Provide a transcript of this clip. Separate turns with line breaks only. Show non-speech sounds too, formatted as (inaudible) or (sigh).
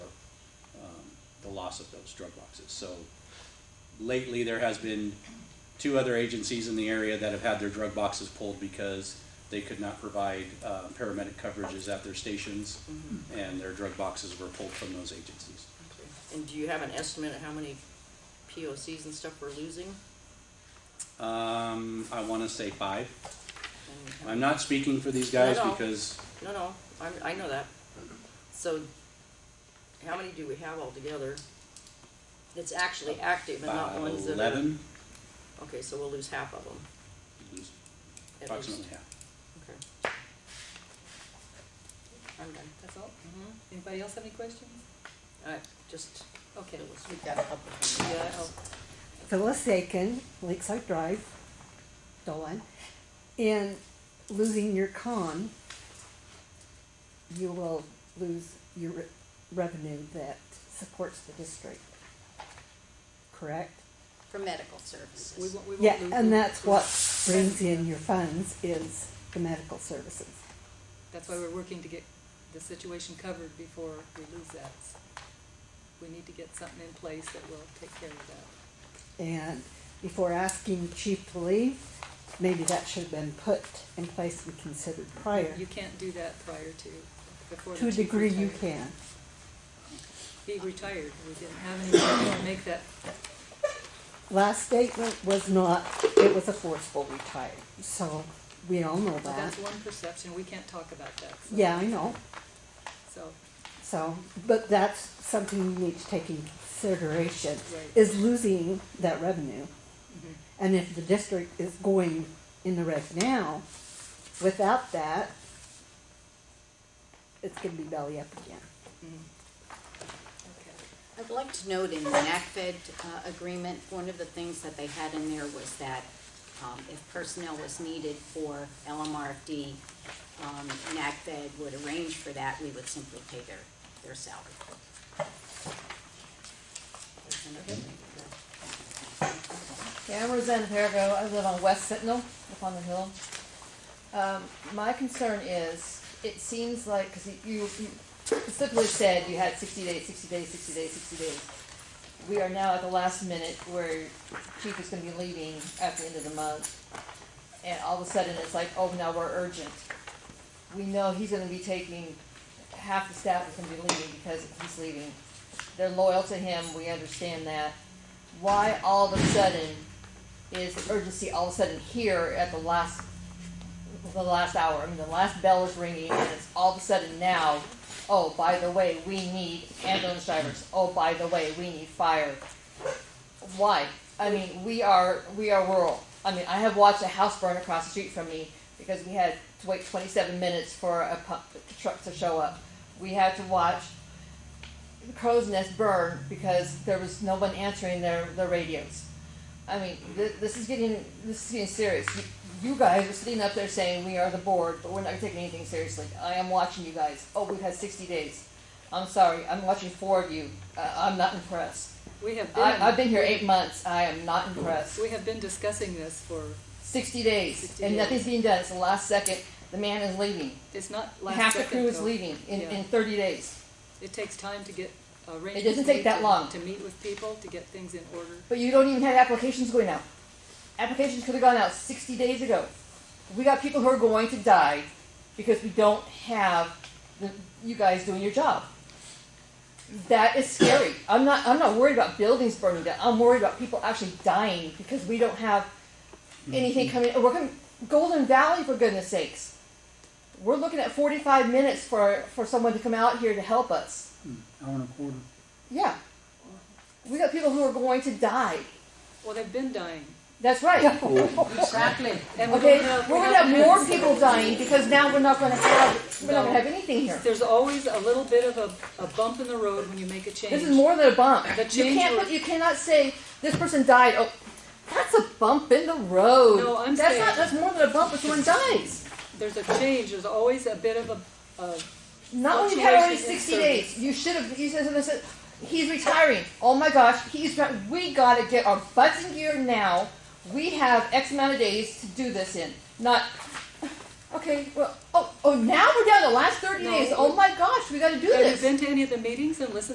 loss of those drug boxes. So lately, there has been two other agencies in the area that have had their drug boxes pulled because they could not provide uh, paramedic coverages at their stations,
Mm-hmm.
and their drug boxes were pulled from those agencies.
And do you have an estimate of how many POCs and stuff we're losing?
Um, I want to say five.
And how-
I'm not speaking for these guys
No, no.
because
No, no, I, I know that. So, how many do we have altogether? That's actually active and not
about
ones that are.
eleven,
Okay, so we'll lose half of them. at least.
approximately half.
Okay. I'm done.
That's all? Anybody else have any questions?
All right, just,
Okay.
We've got a couple of them.
yeah, oh,
Phyllis Aiken, Lakeside Drive, Dolan, in losing your con, you will lose your re- revenue that supports the district. Correct?
For medical
We
services.
won't, we won't.
Yeah,
lose-
and that's what brings in your funds is the medical services.
That's why we're working to get the situation covered before we lose that. We need to get something in place that will take care of that.
And before asking chief to leave, maybe that should have been put in place and considered prior.
You can't do that prior to, before the
To a
chief
degree you
retires.
can.
He retired, we didn't have anyone to make that,
Last statement was not, it was a forceful retire, so we all know
but
that.
that's one perception, we can't talk about that. so-
Yeah, I know,
So,
so, but that's something you need to take in consideration,
Right.
is losing that revenue.
mhm.
And if the district is going in the red now, without that, it's gonna be belly up again.
okay.
I'd like to note in the NACFED uh, agreement, one of the things that they had in there was that um, if personnel was needed for LMRFD, um, NACFED would arrange for that, we would simply pay their, their salary. There's another thing.
Yeah, I'm Roseanne Perigo. I live on West Sentinel, up on the hill. Um, my concern is, it seems like, because you, you specifically said you had 60 days, 60 days, 60 days, 60 days. We are now at the last minute where Chief is going to be leaving at the end of the month. And all of a sudden, it's like, oh, now we're urgent. We know he's going to be taking, half the staff is going to be leaving because he's leaving. They're loyal to him, we understand that why all of a sudden is urgency all of a sudden here at the last the last hour? I mean, the last bell is ringing, and it's all of a sudden now. Oh, by the way, we need ambulance drivers. Oh, by the way, we need fire. Why? I mean, we are we are rural. I mean, I have watched a house burn across the street from me because we had to wait 27 minutes for a pump, truck to show up. We had to watch the crow's nest burned because there was no one answering their, their radios. I mean, th- this is getting this is getting serious. You, you guys are sitting up there saying we are the board, but we're not taking anything seriously. I am watching you guys. Oh, we've had 60 days. I'm sorry. I'm watching four of you. Uh, I'm not impressed.
We have been.
I, I've been here eight months. I am not impressed.
We have been discussing this for,
60 days,
60
and
days.
nothing's being done. It's the last second. The man is leaving.
it's not last
Half the
second,
crew is
though.
leaving in,
Yeah.
in 30 days.
It takes time to get arrangements.
It doesn't take that
made,
long.
To meet with people, to get things in order.
But you don't even have applications going out. Applications could have gone out 60 days ago. We got people who are going to die because we don't have the, you guys doing your job. That
(coughs)
is scary. I'm not, I'm not worried about buildings burning down. I'm worried about people actually dying because we don't have anything
Mm-hmm.
coming. We're coming, Golden Valley, for goodness sakes. We're looking at 45 minutes for, for someone to come out here to help us.
hour and Hmm. a quarter.
Yeah. We got people who are going to die.
Well, they've been dying.
That's right.
Exactly.
And we
Okay,
don't know if we
we're gonna
have
have more people dying because now we're not gonna have, we're not gonna have anything here.
There's always a little bit of a, a bump in the road when you make a change.
This is more than a bump.
The
You
change
can't
will-
put, you cannot say, this person died, oh, that's a bump in the road.
No, I'm
That's
saying-
not, that's more than a bump if someone dies.
There's a change, there's always a bit of a, a,
Not when you've had already
Fluctuation in
sixty days. You should have, you said, something, said, he's retiring. Oh my gosh, he's, got- we gotta get our butts in gear now. We have X amount of days to do this in, not, okay, well, oh, oh, now we're down to the last thirty
No,
days.
we-
Oh my gosh, we gotta do this.
have you been to any of the meetings and listened